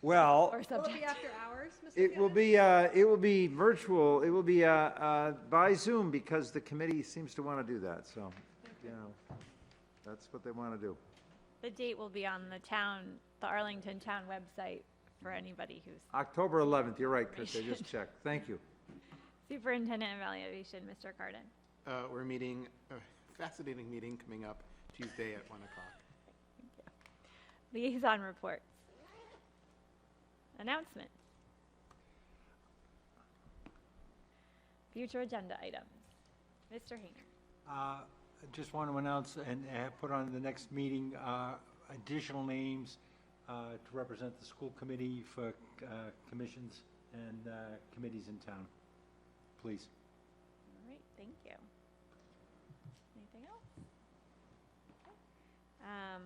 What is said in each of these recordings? Well, or Will it subject. be after hours, Mr. it will Fielder? be, uh, it will be virtual, it will be uh, uh, by Zoom because the committee seems to want to do that, so, you know, that's what they want to do. The date will be on the town, the Arlington Town website for anybody who's October 11th, you're right, Chris, I just checked. Thank you. superintendent evaluation, Mr. Carden. Uh, We're meeting, a fascinating meeting coming up Tuesday at 1 o'clock. Liaison reports. Announcement. Future agenda items. Mr. Hayner. Uh, I Just want to announce and have put on the next meeting uh, additional names uh, to represent the school committee for uh, commissions and uh, committees in town. Please. All right, thank you. Anything else? Okay. Um,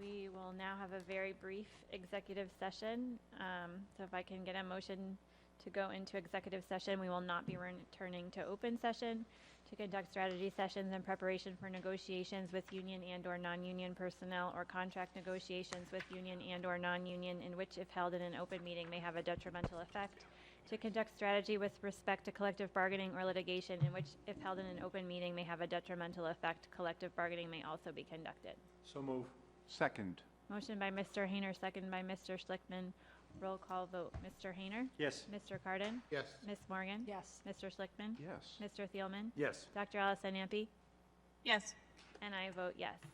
we will now have a very brief executive session. Um, so if I can get a motion to go into executive session, we will not be returning to open session to conduct strategy sessions in preparation for negotiations with union and or non-union personnel or contract negotiations with union and or non-union in which if held in an open meeting may have a detrimental effect to conduct strategy with respect to collective bargaining or litigation in which, if held in an open meeting, may have a detrimental effect, collective bargaining may also be conducted. So move. Second. Motion by Mr. Hayner, second by Mr. Schlickman. Roll call vote. Mr. Hayner? Yes. Mr. Carden? Yes. Ms. Morgan? Yes. Mr. Schlickman? Yes. Mr. Thielman? Yes. Dr. Allison Ampe? Yes. And I vote yes.